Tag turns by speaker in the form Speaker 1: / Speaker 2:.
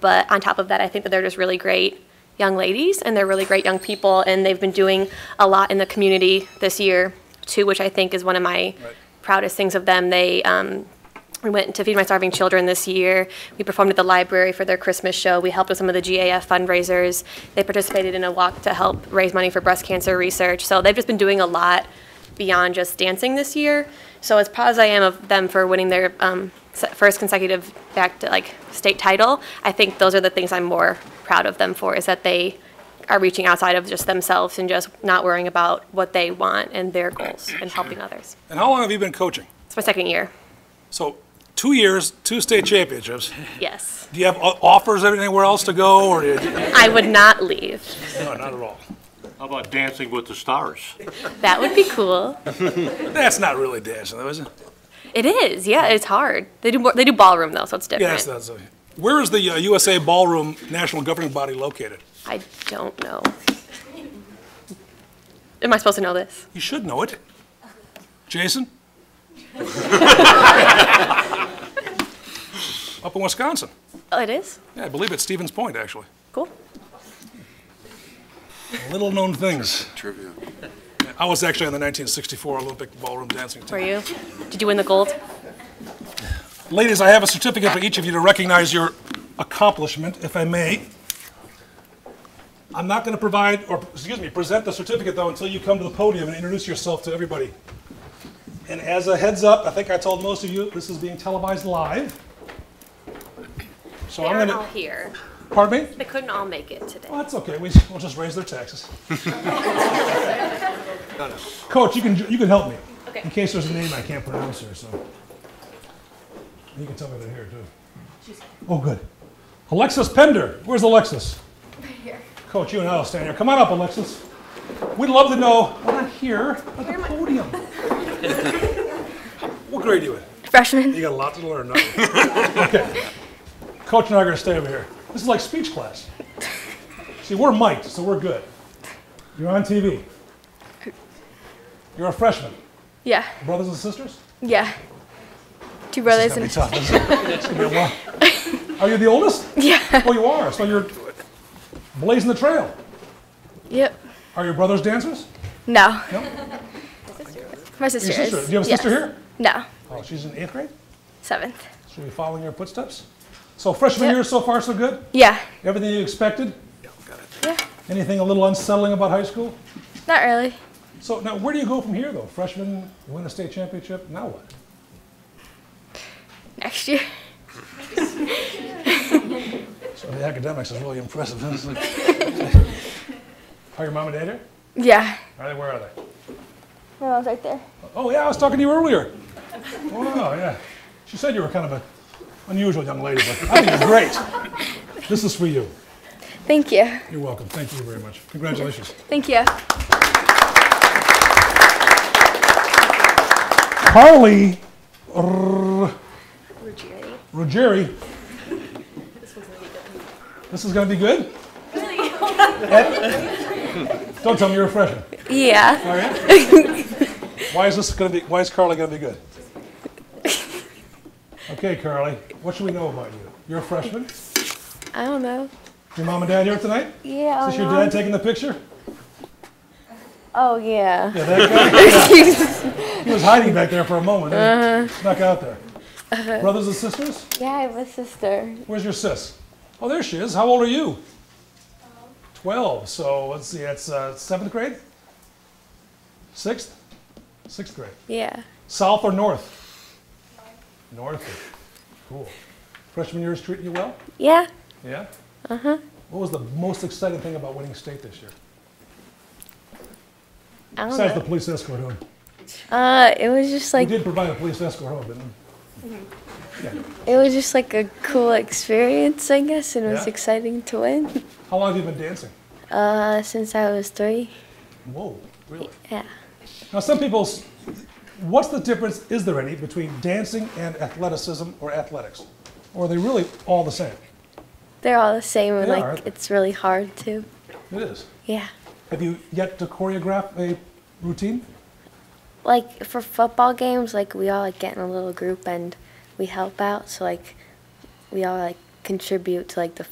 Speaker 1: But on top of that, I think that they're just really great young ladies and they're really great young people and they've been doing a lot in the community this year too, which I think is one of my proudest things of them. They um, we went to Feed My Starving Children this year. We performed at the library for their Christmas show. We helped with some of the GAF fundraisers. They participated in a walk to help raise money for breast cancer research. So they've just been doing a lot beyond just dancing this year. So as proud as I am of them for winning their um, se- first consecutive back to like state title, I think those are the things I'm more proud of them for is that they are reaching outside of just themselves and just not worrying about what they want and their goals and helping others.
Speaker 2: And how long have you been coaching?
Speaker 1: It's my second year.
Speaker 2: So, two years, two state championships.
Speaker 1: Yes.
Speaker 2: Do you have o- offers anywhere else to go, or do you,
Speaker 1: I would not leave.
Speaker 2: no, not at all?
Speaker 3: How about Dancing with the Stars?
Speaker 1: That would be cool.
Speaker 2: That's not really dancing, though, is it?
Speaker 1: It is. Yeah, it's hard. They do more, they do ballroom though, so it's different.
Speaker 2: Yeah, that's, that's, a- where is the uh, USA Ballroom National Governing Body located?
Speaker 1: I don't know. Am I supposed to know this?
Speaker 2: You should know it. Jason? Up in Wisconsin.
Speaker 1: Oh, it is.
Speaker 2: Yeah, I believe it's Stevens Point, actually.
Speaker 1: Cool.
Speaker 2: Little-known things.
Speaker 4: Trivia.
Speaker 2: I was actually on the 1964 Olympic ballroom dancing team.
Speaker 1: Were you? Did you win the gold?
Speaker 2: Ladies, I have a certificate for each of you to recognize your accomplishment, if I may. I'm not going to provide, or excuse me, present the certificate though until you come to the podium and introduce yourself to everybody. And as a heads up, I think I told most of you this is being televised live. So I'm going to,
Speaker 1: here.
Speaker 2: pardon me?
Speaker 1: They couldn't all make it today.
Speaker 2: Well, that's okay. We, we'll just raise their taxes. Coach, you can, you can help me.
Speaker 1: Okay.
Speaker 2: In case there's a name I can't pronounce here, so. You can tell me they're here, too. Oh, good. Alexis Pender. Where's Alexis? Right here. Coach, you and I will stand here. Come on up, Alexis. We'd love to know. Well, not here, at the podium. what grade are you in?
Speaker 5: freshman.
Speaker 2: You got a lot to learn. don't you? okay. Coach and I are going to stay over here. This is like speech class. See, we're mic'd, so we're good. You're on TV. You're a freshman.
Speaker 5: Yeah,
Speaker 2: Brothers and sisters?
Speaker 5: yeah. Two brothers
Speaker 2: That'd be
Speaker 5: and
Speaker 2: tough. isn't it? It's going to be a while. Are you the oldest?
Speaker 5: yeah,
Speaker 2: Well, you are, so you're blazing the trail.
Speaker 5: yep.
Speaker 2: Are your brothers dancers?
Speaker 5: No,
Speaker 2: No?
Speaker 5: my sister.
Speaker 2: Your sister?
Speaker 5: is-
Speaker 2: Do you have a sister
Speaker 5: yes.
Speaker 2: here?
Speaker 5: No,
Speaker 2: Oh, she's in eighth grade?
Speaker 5: seventh.
Speaker 2: Should we follow in your footsteps? So freshman
Speaker 5: Yep.
Speaker 2: year so far so good?
Speaker 5: Yeah,
Speaker 2: Everything you expected?
Speaker 5: yeah.
Speaker 2: Anything a little unsettling about high school?
Speaker 5: Not really.
Speaker 2: So now, where do you go from here, though? Freshman, you win a state championship. Now what?
Speaker 5: Next year.
Speaker 2: So the academics is really impressive. isn't it? are your mom and dad here?
Speaker 5: Yeah.
Speaker 2: Are they? Where are they?
Speaker 5: My mom's right there.
Speaker 2: Oh yeah, I was talking to you earlier. Wow, yeah. She said you were kind of an unusual young lady, but I think you're great. This is for you.
Speaker 5: Thank you.
Speaker 2: You're welcome. Thank you very much. Congratulations.
Speaker 5: Thank you.
Speaker 2: Carly Ruggieri. This is going to be good. Ed? Don't tell me you're a freshman.
Speaker 5: Yeah.
Speaker 2: All right. Why is this going to be, why is Carly going to be good? Okay, Carly, what should we know about you? You're a freshman?
Speaker 5: I don't know.
Speaker 2: Your mom and dad here tonight?
Speaker 5: Yeah.
Speaker 2: Is this your dad taking the picture?
Speaker 5: Oh yeah.
Speaker 2: Yeah, that guy? Yeah. He was hiding back there for a moment. and he Snuck out there. Brothers and sisters?
Speaker 5: Yeah, I have a sister.
Speaker 2: Where's your sis? Oh, there she is. How old are you? Twelve. So let's see, that's uh, seventh grade? Sixth? Sixth grade.
Speaker 5: Yeah.
Speaker 2: South or north? North. Cool. Freshman year is treating you well?
Speaker 5: Yeah.
Speaker 2: Yeah? Uh-huh. What was the most exciting thing about winning state this year?
Speaker 5: I don't
Speaker 2: Besides the
Speaker 5: know.
Speaker 2: police escort home.
Speaker 5: Uh, it was just
Speaker 2: We
Speaker 5: like
Speaker 2: did provide a police escort home, didn't we?
Speaker 5: it was just like a cool experience, I guess, and it was
Speaker 2: Yeah?
Speaker 5: exciting to win.
Speaker 2: How long have you been dancing?
Speaker 5: Uh, since I was three.
Speaker 2: Whoa, really?
Speaker 5: Yeah.
Speaker 2: Now, some people, s- what's the difference, is there any, between dancing and athleticism or athletics? Or are they really all the same?
Speaker 5: They're all the same, and
Speaker 2: They
Speaker 5: like
Speaker 2: are, aren't they?
Speaker 5: it's really hard to.
Speaker 2: It is.
Speaker 5: Yeah.
Speaker 2: Have you yet to choreograph a routine?
Speaker 5: Like for football games, like we all like get in a little group and we help out. So like we all like contribute to like the